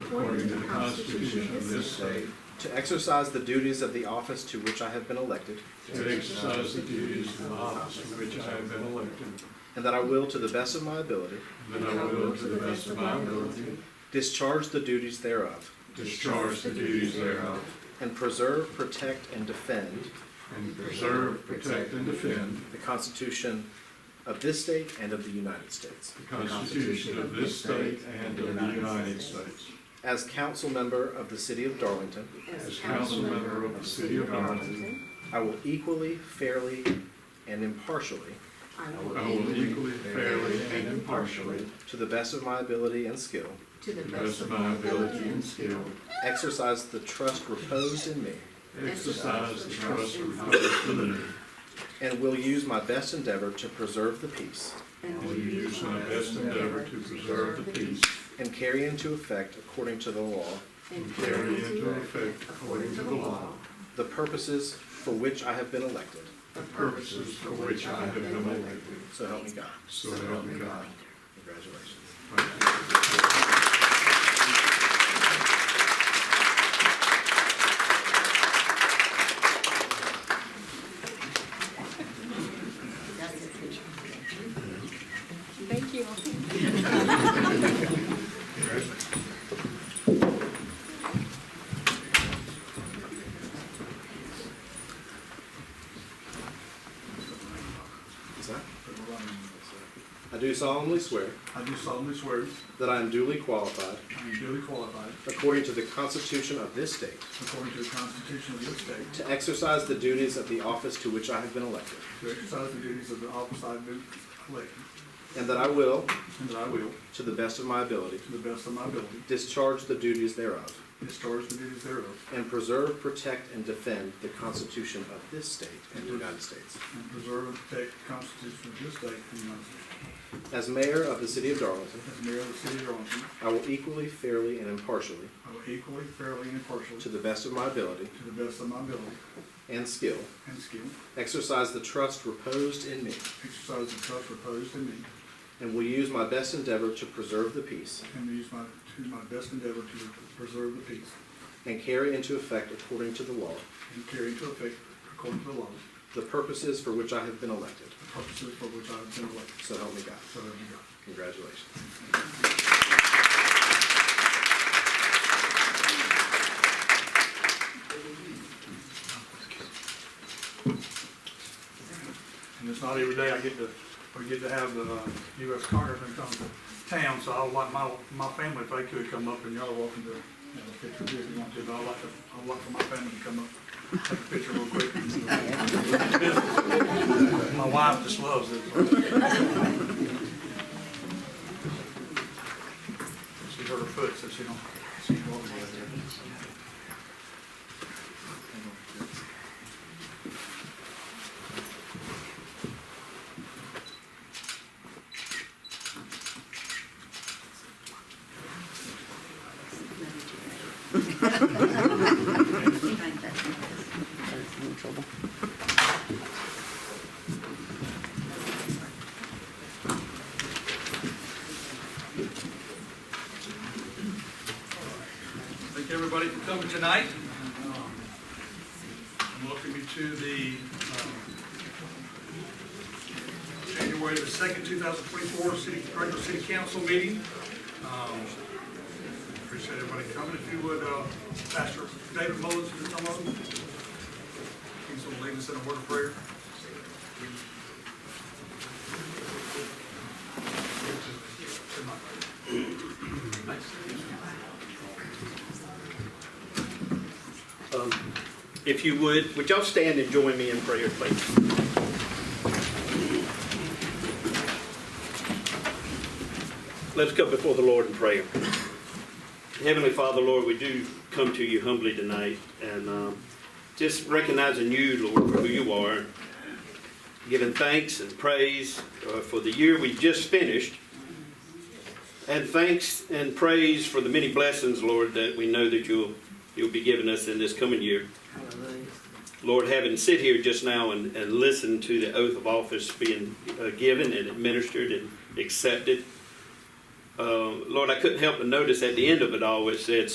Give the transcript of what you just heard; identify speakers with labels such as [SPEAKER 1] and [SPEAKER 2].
[SPEAKER 1] according to the Constitution of this state,
[SPEAKER 2] to exercise the duties of the office to which I have been elected,
[SPEAKER 1] to exercise the duties of the office to which I have been elected,
[SPEAKER 2] and that I will, to the best of my ability,
[SPEAKER 1] and that I will, to the best of my ability,
[SPEAKER 2] discharge the duties thereof,
[SPEAKER 1] discharge the duties thereof,
[SPEAKER 2] and preserve, protect, and defend
[SPEAKER 1] and preserve, protect, and defend
[SPEAKER 2] the Constitution of this state and of the United States.
[SPEAKER 1] the Constitution of this state and of the United States.
[SPEAKER 2] As council member of the city of Darlington,
[SPEAKER 1] As council member of the city of Darlington,
[SPEAKER 2] I will equally, fairly, and impartially,
[SPEAKER 3] I
[SPEAKER 1] I will equally, fairly, and impartially,
[SPEAKER 2] to the best of my ability and skill,
[SPEAKER 3] to
[SPEAKER 1] to the best of my ability and skill,
[SPEAKER 2] exercise the trust reposed in me,
[SPEAKER 1] exercise the trust reposed in me,
[SPEAKER 2] and will use my best endeavor to preserve the peace
[SPEAKER 1] and will use my best endeavor to preserve the peace
[SPEAKER 2] and carry into effect, according to the law,
[SPEAKER 1] and carry into effect according to the law
[SPEAKER 2] the purposes for which I have been elected.
[SPEAKER 1] the purposes for which I have been elected.
[SPEAKER 2] So help me God.
[SPEAKER 1] So help me God.
[SPEAKER 2] Congratulations.
[SPEAKER 3] Thank you.
[SPEAKER 2] Is that? I do solemnly swear
[SPEAKER 4] I do solemnly swear
[SPEAKER 2] that I am duly qualified,
[SPEAKER 4] I am duly qualified,
[SPEAKER 2] according to the Constitution of this state,
[SPEAKER 4] according to the Constitution of this state,
[SPEAKER 2] to exercise the duties of the office to which I have been elected,
[SPEAKER 4] to exercise the duties of the office I have been elected,
[SPEAKER 2] and that I will,
[SPEAKER 4] and that I will,
[SPEAKER 2] to the best of my ability,
[SPEAKER 4] to the best of my ability,
[SPEAKER 2] discharge the duties thereof,
[SPEAKER 4] discharge the duties thereof,
[SPEAKER 2] and preserve, protect, and defend the Constitution of this state and the United States.
[SPEAKER 4] and preserve and protect the Constitution of this state and the United States.
[SPEAKER 2] As mayor of the city of Darlington,
[SPEAKER 4] As mayor of the city of Darlington,
[SPEAKER 2] I will equally, fairly, and impartially,
[SPEAKER 4] I will equally, fairly, and impartially,
[SPEAKER 2] to the best of my ability
[SPEAKER 4] to the best of my ability
[SPEAKER 2] and skill,
[SPEAKER 4] and skill,
[SPEAKER 2] exercise the trust reposed in me,
[SPEAKER 4] exercise the trust reposed in me,
[SPEAKER 2] and will use my best endeavor to preserve the peace
[SPEAKER 4] and use my, to my best endeavor to preserve the peace,
[SPEAKER 2] and carry into effect, according to the law,
[SPEAKER 4] and carry into effect, according to the law,
[SPEAKER 2] the purposes for which I have been elected.
[SPEAKER 4] the purposes for which I have been elected.
[SPEAKER 2] So help me God.
[SPEAKER 4] So help me God.
[SPEAKER 2] Congratulations.
[SPEAKER 4] And it's not every day I get to, we get to have the uh, US Congressman come to town, so I would like my, my family, if they could come up and y'all are welcome to, you know, take a picture if you want to, but I'd like to, I'd like for my family to come up, take a picture real quick. My wife just loves it. She hurt her foot, so she don't, she don't walk like that. Thank everybody for coming tonight. And Welcome you to the uh, um, January the 2nd, 2024 City, regular City Council meeting. Um, Appreciate everybody coming. If you would, uh, Pastor David Mullins, if you come up. He's going to lead us in a word of prayer.
[SPEAKER 5] Um, If you would, would y'all stand and join me in prayer, please? Let's come before the Lord in prayer. Heavenly Father, Lord, we do come to you humbly tonight and um, just recognizing you, Lord, for who you are, giving thanks and praise uh, for the year we just finished, and thanks and praise for the many blessings, Lord, that we know that you'll you'll be giving us in this coming year. Lord, having sit here just now and, and listen to the oath of office being uh, given and administered and accepted, uh, Uh, Lord, I couldn't help but notice at the end of it all, it said,